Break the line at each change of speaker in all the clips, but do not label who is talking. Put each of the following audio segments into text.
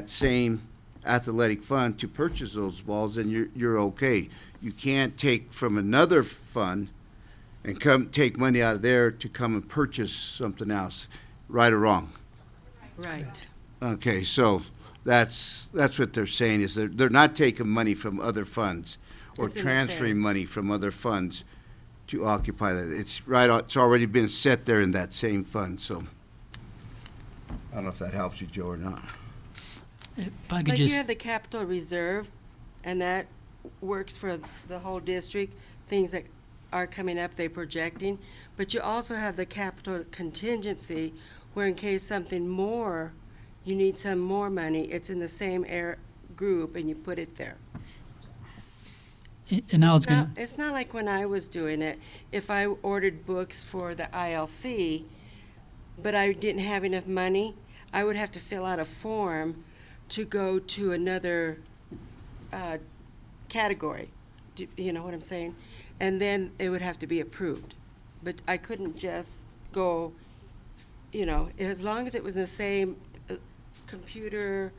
that same athletic fund to purchase those balls, and you're, you're okay. You can't take from another fund and come, take money out of there to come and purchase something else, right or wrong.
Right.
Okay, so that's, that's what they're saying, is they're, they're not taking money from other funds or
It's in the same.
transferring money from other funds to occupy that. It's right, o- it's already been set there in that same fund, so. I don't know if that helps you, Joe, or not.
If I could
Like you
just,
have the capital reserve, and that works for the whole district, things that are coming up, they're projecting. But you also have the capital contingency, where in case something more, you need some more money, it's in the same air group, and you put it there.
and I was
It's not,
gonna,
it's not like when I was doing it, if I ordered books for the ILC, but I didn't have enough money, I would have to fill out a form to go to another, uh, category. Do, you know what I'm saying? And then it would have to be approved. But I couldn't just go, you know, as long as it was in the same uh, computer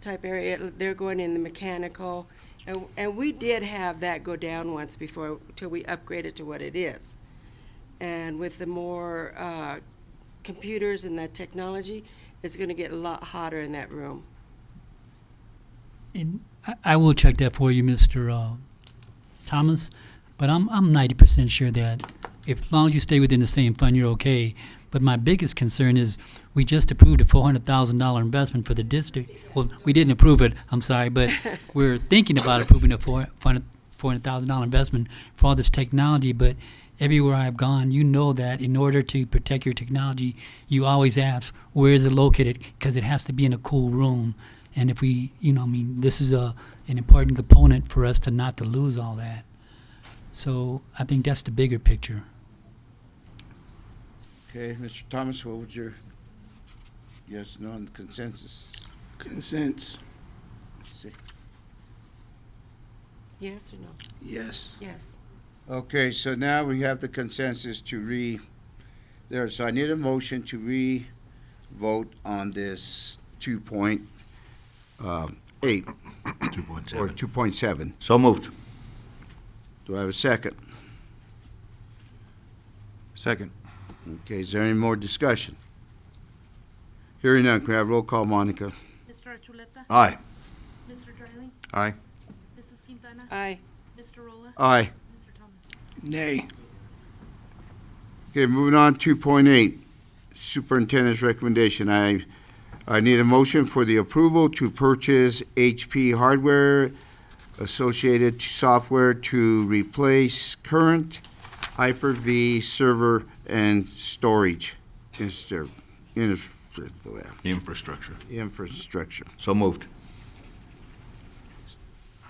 type area, it- they're going in the mechanical, and, and we did have that go down once before, till we upgraded to what it is. And with the more, uh, computers and that technology, it's gonna get a lot hotter in that room.
and I, I will check that for you, Mr. Uh, Thomas, but I'm, I'm ninety percent sure that if, as long as you stay within the same fund, you're okay. But my biggest concern is, we just approved a four hundred thousand dollar investment for the district. Well, we didn't approve it, I'm sorry, but we're thinking about approving a four, four hundred thousand dollar investment for all this technology, but everywhere I've gone, you know that in order to protect your technology, you always ask, where is it located? Because it has to be in a cool room. And if we, you know, I mean, this is a, an important component for us to not to lose all that. So I think that's the bigger picture.
Okay, Mr. Thomas, what would your yes, no, and consensus
Consents,
say?
Yes or no?
yes.
Yes.
Okay, so now we have the consensus to re, there, so I need a motion to re-vote on this two point, uh, eight,
Two point
or
seven.
two point seven.
So moved.
Do I have a second?
Second.
Okay, is there any more discussion? Hearing none, can we have roll call, Monica?
Mr. Archuleta?
Aye.
Mr. Dryling?
Aye.
Mrs. Quintana?
Aye.
Mr. Rolla?
Aye.
Mr. Thomas?
Nay,
Okay, moving on, two point eight, superintendent's recommendation. I, I need a motion for the approval to purchase HP hardware associated software to replace current Hyper-V server and storage inster- infra-
Infrastructure.
infrastructure.
So moved.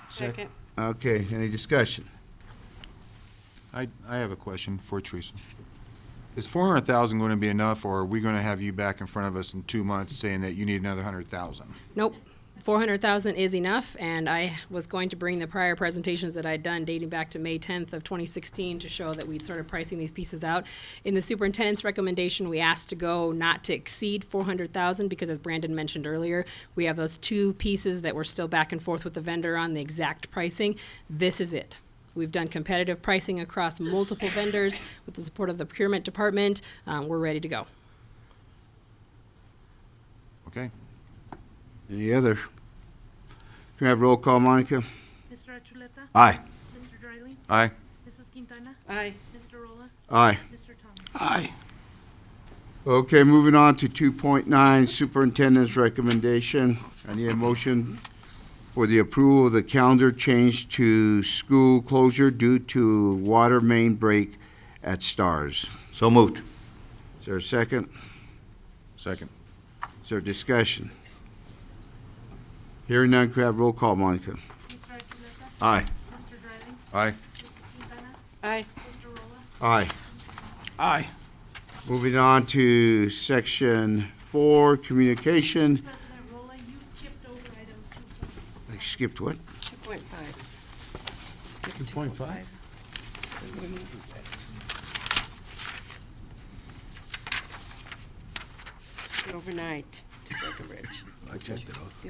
Second.
Okay, any discussion?
I, I have a question for Teresa. Is four hundred thousand going to be enough, or are we going to have you back in front of us in two months saying that you need another hundred thousand?
Nope. Four hundred thousand is enough, and I was going to bring the prior presentations that I'd done dating back to May tenth of twenty sixteen to show that we'd started pricing these pieces out. In the superintendent's recommendation, we asked to go not to exceed four hundred thousand, because as Brandon mentioned earlier, we have those two pieces that we're still back and forth with the vendor on the exact pricing. This is it. We've done competitive pricing across multiple vendors with the support of the procurement department. Um, we're ready to go.
Okay?
Any other? Can I have roll call, Monica?
Mr. Archuleta?
Aye.
Mr. Dryling?
Aye.
Mrs. Quintana?
Aye.
Mr. Rolla?
Aye.
Mr. Thomas?
aye,
Okay, moving on to two point nine, superintendent's recommendation. I need a motion for the approval of the calendar change to school closure due to water main break at Stars.
So moved.
Is there a second?
Second.
Is there discussion? Hearing none, could I have roll call, Monica?
Mr. Archuleta?
Aye.
Mr. Dryling?
Aye.
Mrs. Quintana?
Aye.
Mr. Rolla?
Aye.
aye.
Moving on to section four, communication.
President Rolla, you skipped over item two point
I skipped what?
Two point five. Two point five? Overnight. today.
Breckenridge.
I checked it off.